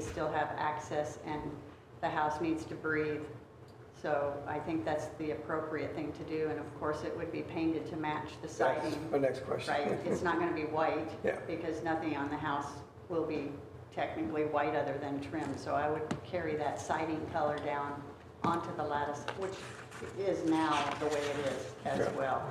still have access and the house needs to breathe. So I think that's the appropriate thing to do, and of course, it would be painted to match the That's siding. my next question. Right, it's not gonna be white. Yeah. Because nothing on the house will be technically white other than trim, so I would carry that siding color down onto the lattice, which is now the way it is as Yeah. well.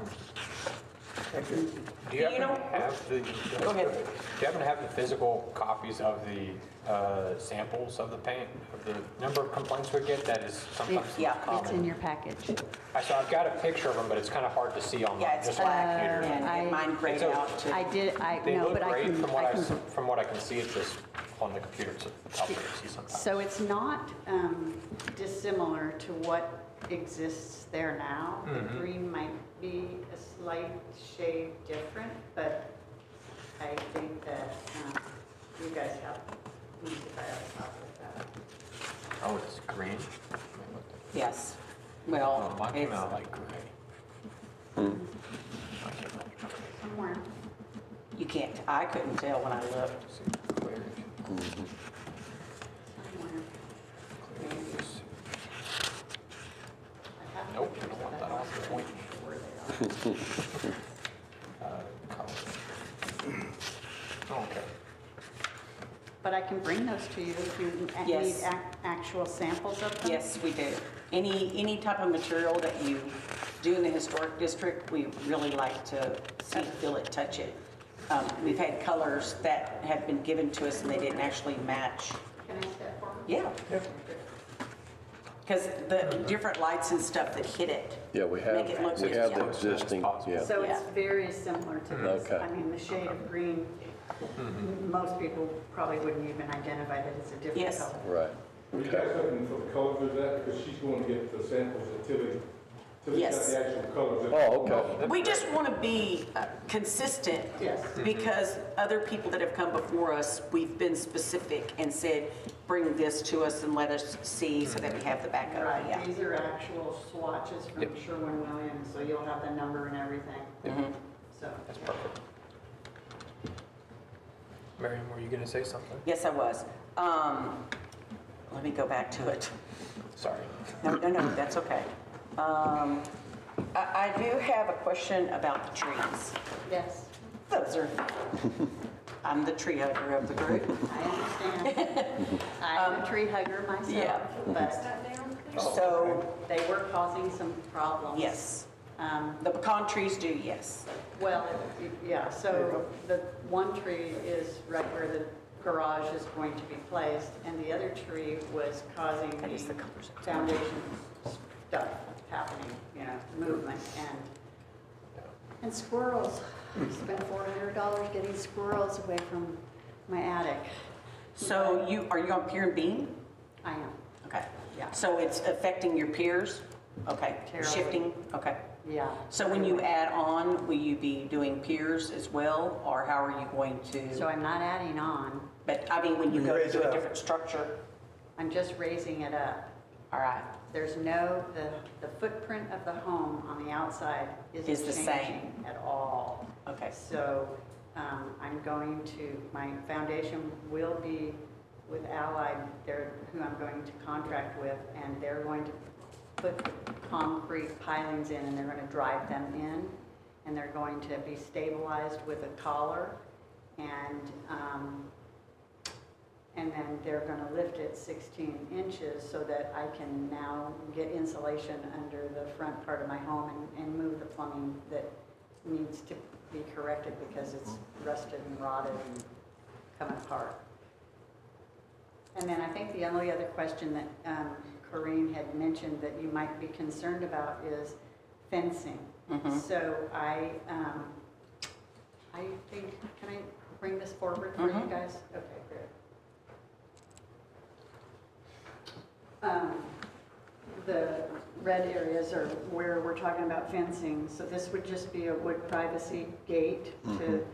Thank you. Do you Do you happen to have the, Go ahead. do you happen to have the physical copies of the uh, samples of the paint, of the number of complaints we get? That is sometimes Yeah. not It's in common. your package. I- So I've got a picture of them, but it's kind of hard to see Yeah, online, it's just on black the and- computer. and mine grayed It's a- out too. I did, I, They no, look but I great can, from what I, I s- can from what I can see, it's just on the computer, it's tough to see sometimes. So it's not um, dissimilar to what exists there now. The Mm-hmm. green might be a slight shade different, but I think that um, you guys have, you should buy a copy of that. Oh, it's green? Yes, Oh, well, mine came out it's, like gray. Hmm. I can't remember. Somewhere. you can't, I couldn't tell when I looked. See, clear. somewhere. Clear is- I have Nope, I pictures don't of want that. that on the point. Where they are. Okay. But I can bring those to you if you a- need Yes. ac- actual samples of them. Yes, we do. Any, any type of material that you do in the historic district, we really like to see, feel it, touch it. Um, We've had colors that have been given to us and they didn't actually match. Can I step forward? Yeah. Because the different lights and stuff that hit it. Yeah, we have, Make it look we have good, the yeah. existing, yeah. So it's Yeah. very similar to this. Okay. I mean, the shade of green, most people probably wouldn't even identify that it's a different Yes. color. Right, Are you guys looking for the colors of that? Because she's going to get the samples of Tilly. Tilly's got Yes. the actual colors. in it. oh, okay, We just want to be uh, consistent. Yes. Because other people that have come before us, we've been specific and said, bring this to us and let us see so that we have the backup. Right, Yeah. these are actual swatches from Sherwin-Williams, so you'll have the number and Mm-hmm. everything. So, That's perfect. Miriam, were you gonna say something? Yes, I was. Um, Let me go back to it. Sorry. No, no, no, that's okay. Um, I I do have a question about the trees. yes, Those are, I'm the tree hugger of the group. I understand. I'm a tree hugger myself, Um, yeah. but Oh, So, they were causing some problems. yes, Um, the pecan trees do, yes. Well, it- yeah, so the one tree is right where the garage is going to be placed, and the other tree was causing That is the the colors. foundation stuff happening, you know, movement, and, And squirrels. I Spent four hundred dollars getting squirrels away from my attic. So you, are you on Pier and Bean? I am, Okay. Yeah. So it's affecting your peers? Okay. Terribly. Shifting? Okay. yeah. So when you add on, will you be doing peers as well, or how are you going So to? I'm not adding on, But I mean, when you go Raise it to a up. different structure, I'm just raising it up. all right, There's no, the, the footprint of the home on the outside Is the isn't same. changing at all. okay. So um, I'm going to, my foundation will be with Allied, they're, who I'm going to contract with, and they're going to put concrete pilings in, and they're going to drive them in, and they're going to be stabilized with a collar, and, um, and then they're going to lift it 16 inches so that I can now get insulation under the front part of my home and, and move the plumbing that needs to be corrected because it's rusted and rotted and coming apart. And then I think the only other question that um, Corinne had mentioned that you might be concerned about is fencing. Mm-hmm. So I, um, I think, can I bring this forward for you Mhm. guys? Okay, great. Um, The red areas are where we're talking about fencing, so this would just be a wood privacy gate to,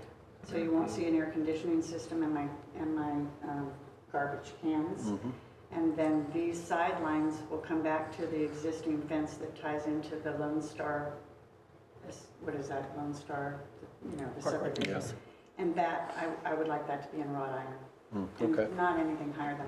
so you won't see an air conditioning system in my, in my um, garbage cans. Mm-hmm. And then these sidelines will come back to the existing fence that ties into the Lone Star, this- what is that, Lone Star, you know, the subdivision. And that, I, I would like that to be in wrought iron. Mm-hmm. okay. Mm-hmm. And Not anything higher than